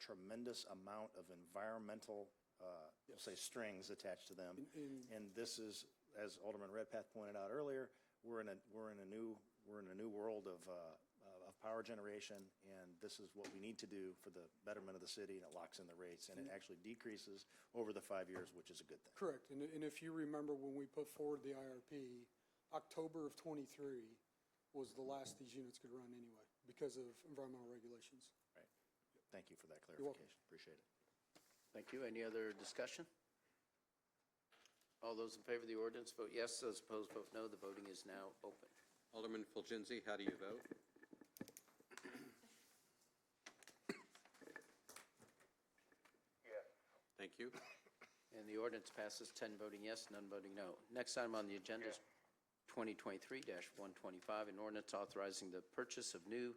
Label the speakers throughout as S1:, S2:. S1: tremendous amount of environmental, uh, we'll say, strings attached to them. And this is, as Alderman Redpath pointed out earlier, we're in a, we're in a new, we're in a new world of, uh, of power generation, and this is what we need to do for the betterment of the city, and it locks in the rates, and it actually decreases over the five years, which is a good thing.
S2: Correct. And, and if you remember when we put forward the IRP, October of '23 was the last these units could run anyway because of environmental regulations.
S1: Right. Thank you for that
S2: welcome.
S1: clarification. Appreciate it.
S3: Thank you. Any other discussion? All those in favor of the ordinance, vote yes. Those opposed, vote no. The voting is now open.
S4: Alderman Fulginsy, how do you vote?
S5: Yes.
S4: Thank you.
S3: And the ordinance passes 10 voting yes, none voting no. Next item on the agenda is 2023-125, an ordinance authorizing the purchase of new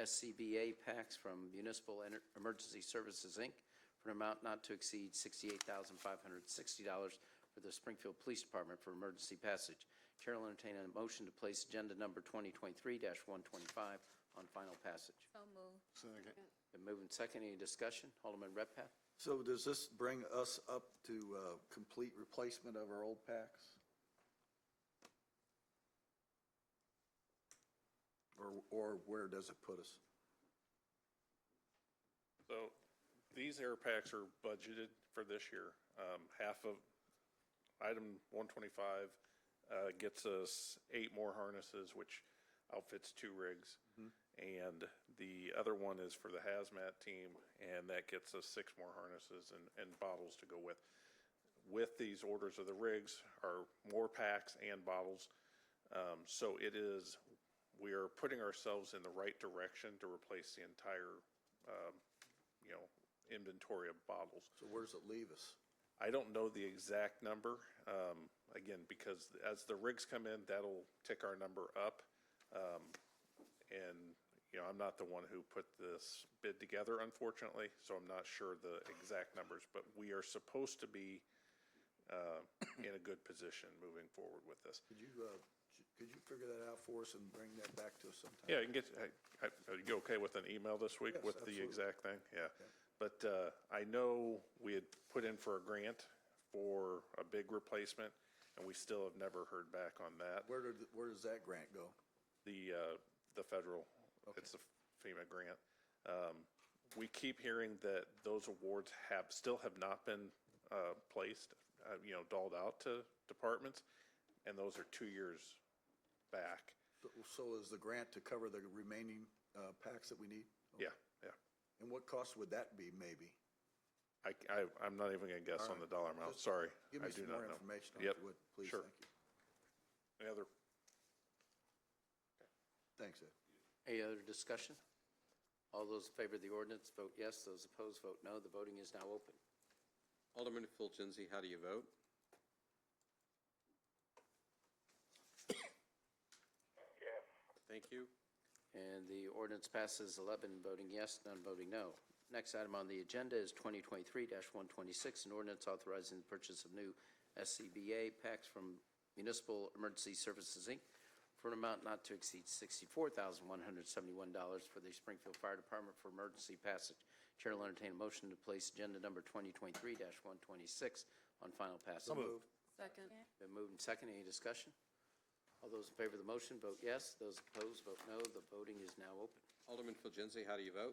S3: SCBA packs from Municipal Ener- Emergency Services, Inc., for an amount not to exceed $68,560 for the Springfield Police Department for emergency passage. Chair will entertain a motion to place agenda number 2023-125 on final passage.
S6: So moved.
S3: Been moved and seconded. Any discussion? Alderman Redpath?
S7: So does this bring us up to uh, complete replacement of our old packs? Or, or where does it put us?
S8: So these air packs are budgeted for this year. Um, Half of item 125 uh, gets us eight more harnesses, which outfits two rigs. And the other one is for the hazmat team, and that gets us six more harnesses and, and bottles to go with. With these orders of the rigs are more packs and bottles. Um, So it is, we are putting ourselves in the right direction to replace the entire you know, inventory of bottles.
S7: So where does it leave us?
S8: I don't know the exact number, um, again, because as the rigs come in, that'll tick our number up. Um, and, you know, I'm not the one who put this bid together, unfortunately, so I'm not sure the exact numbers, but we are supposed to be, uh, in a good position moving forward with this.
S7: Could you, uh, j- could you figure that out for us and bring that back to us sometime?
S8: Yeah, you can get, I- I- are you okay with an email this week
S7: Yes,
S8: with the
S7: absolutely.
S8: exact thing? Yeah. But uh, I know we had put in for a grant for a big replacement, and we still have never heard back on that.
S7: Where did, where does that grant go?
S8: The, uh, the federal, it's a FEMA grant. Um, We keep hearing that those awards have, still have not been uh, placed, uh, you know, dolled out to departments, and those are two years back.
S7: So- So is the grant to cover the remaining uh, packs that we need?
S8: Yeah, yeah.
S7: And what cost would that be, maybe?
S8: I, I, I'm not even gonna guess on the dollar amount,
S7: Just
S8: sorry.
S7: Give me
S8: I do
S7: some
S8: not
S7: more
S8: know.
S7: information on
S8: Yep,
S7: it, would- please,
S8: sure.
S7: thank you.
S8: Any other,
S7: Thanks, Ed.
S3: Any other discussion? All those in favor of the ordinance, vote yes. Those opposed, vote no. The voting is now open.
S4: Alderman Fulginsy, how do you vote?
S5: Yes.
S4: Thank you.
S3: And the ordinance passes 11 voting yes, none voting no. Next item on the agenda is 2023-126, an ordinance authorizing the purchase of new SCBA packs from Municipal Emergency Services, Inc., for an amount not to exceed $64,171 for the Springfield Fire Department for emergency passage. Chair will entertain a motion to place agenda number 2023-126 on final passage.
S6: Second.
S3: Been moved and seconded. Any discussion? All those in favor of the motion, vote yes. Those opposed, vote no. The voting is now open.
S4: Alderman Fulginsy, how do you vote?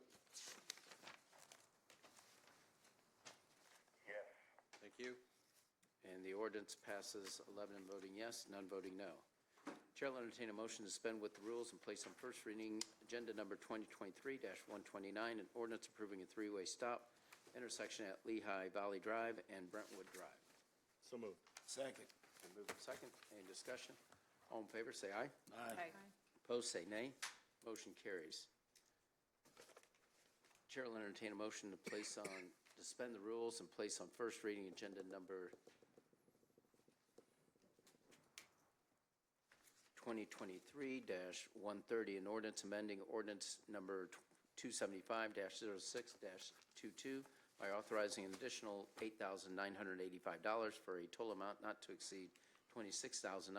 S5: Yes.
S4: Thank you.
S3: And the ordinance passes 11 voting yes, none voting no. Chair will entertain a motion to suspend with the rules and place on first reading agenda number 2023-129, an ordinance approving a three-way stop intersection at Lehigh Valley Drive and Brentwood Drive.
S1: So moved.
S7: Second.
S3: Been moved and seconded. Any discussion? All in favor, say aye.
S6: Aye.
S3: Opposed, say nay. Motion carries. Chair will entertain a motion to place on, suspend the rules and place on first reading agenda number 2023-130, an ordinance amending ordinance number 275-06-22 by authorizing an additional $8,985 for a total amount not to exceed $26,985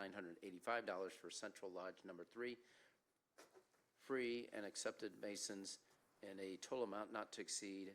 S3: for Central Lodge Number 3, free and accepted masons, and a total amount not to exceed